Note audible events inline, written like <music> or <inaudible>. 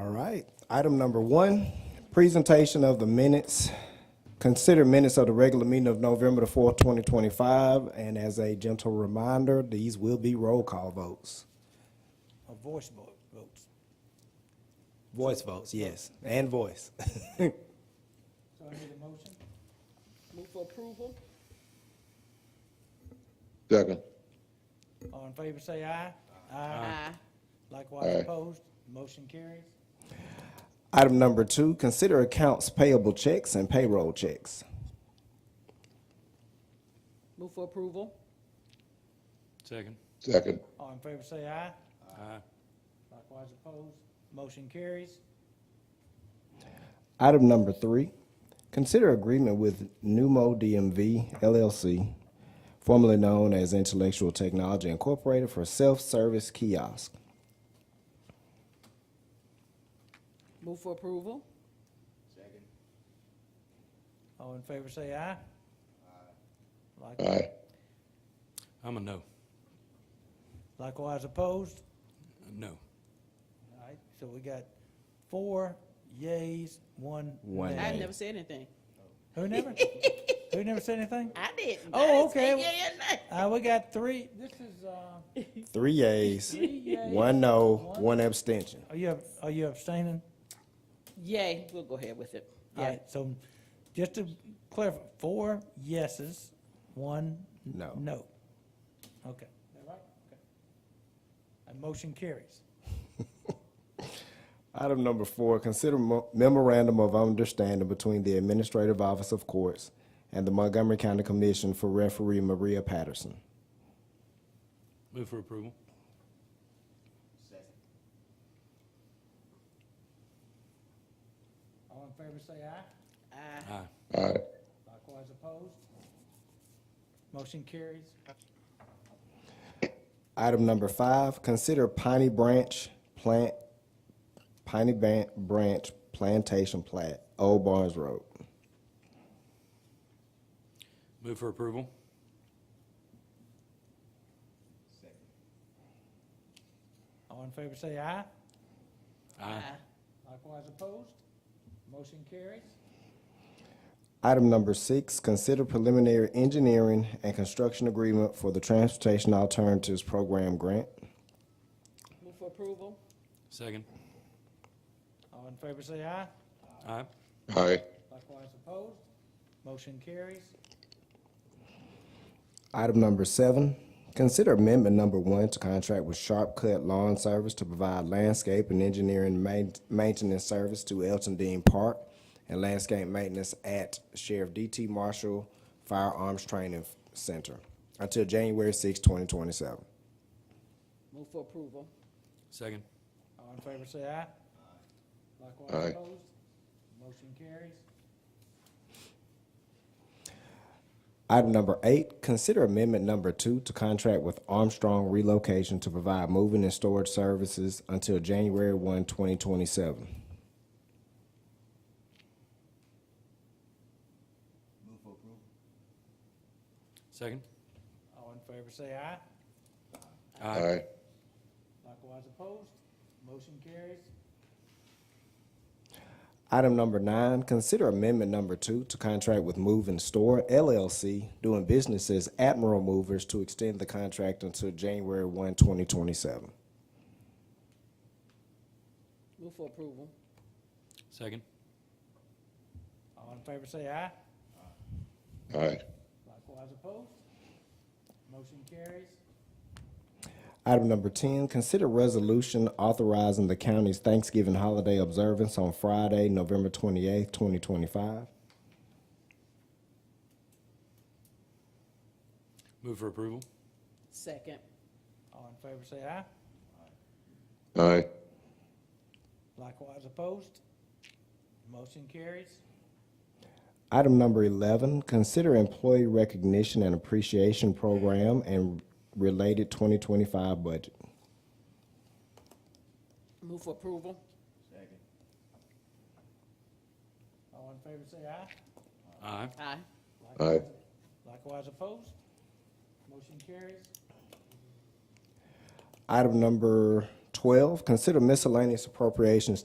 right. Item number one, presentation of the minutes. Consider minutes of the regular meeting of November the fourth, twenty twenty-five, and as a gentle reminder, these will be roll call votes. A voice vote, votes. Voice votes, yes, and voice. <laughs> So I need a motion? Move for approval? Second. All in favor, say aye. Aye. Likewise Aye. opposed, motion carries. Item number two, consider accounts payable checks and payroll checks. Move for approval? Second. Second. All in favor, say aye. Aye. Likewise opposed, motion carries. Item number three, consider agreement with Numo DMV LLC, formerly known as Intellectual Technology Incorporated for self-service kiosk. Move for approval? All in favor, say aye. Like- Aye. I'm a no. Likewise opposed, No. all right, so we got four yays, one One nay. I Aye. never said anything. Who never, who never said <laughs> anything? I didn't. Oh, I said okay. yeah and nay. Uh, we got three, this is, uh, Three yeas, three yays. one no, one abstention. Are you, are you abstaining? Yay, we'll go ahead with it. All Yeah. right, so just to clarify, four yeses, one n- No. no. Okay. Is that right? Okay. And motion carries. Item number four, consider mo- memorandum of understanding between the Administrative Office of Courts and the Montgomery County Commission for referee Maria Patterson. Move for approval. All in favor, say aye. Aye. Aye. Aye. Likewise opposed. Motion carries. Item number five, consider Piney Branch Plant, Piney Ban- Branch Plantation Plat, Old Barnes Road. Move for approval. All in favor, say aye. Aye. Likewise opposed. Motion carries. Item number six, consider preliminary engineering and construction agreement for the Transportation Alternatives Program Grant. Move for approval? Second. All in favor, say aye. Aye. Aye. Likewise opposed. Motion carries. Item number seven, consider amendment number one to contract with Sharp Cut Lawn Service to provide landscape and engineering main- maintenance service to Elton Dean Park and landscape maintenance at Sheriff D.T. Marshall Firearms Training Center until January 6, 2027. Move for approval? Second. All in favor, say aye. Aye. Likewise opposed. Motion carries. Item number eight, consider amendment number two to contract with Armstrong Relocation to provide moving and storage services until January 1, 2027. Second. All in favor, say aye. Aye. Aye. Likewise opposed. Motion carries. Item number nine, consider amendment number two to contract with Move and Store LLC doing business as Admiral Movers to extend the contract until January 1, 2027. Move for approval? Second. All in favor, say aye. Aye. Likewise opposed. Motion carries. Item number 10, consider resolution authorizing the county's Thanksgiving holiday observance on Friday, November 28, 2025. Move for approval. Second. All in favor, say aye. Aye. Likewise opposed. Motion carries. Item number 11, consider employee recognition and appreciation program and related 2025 budget. Move for approval? All in favor, say aye. Aye. Aye. Aye. Likewise opposed. Motion carries. Item number 12, consider miscellaneous appropriations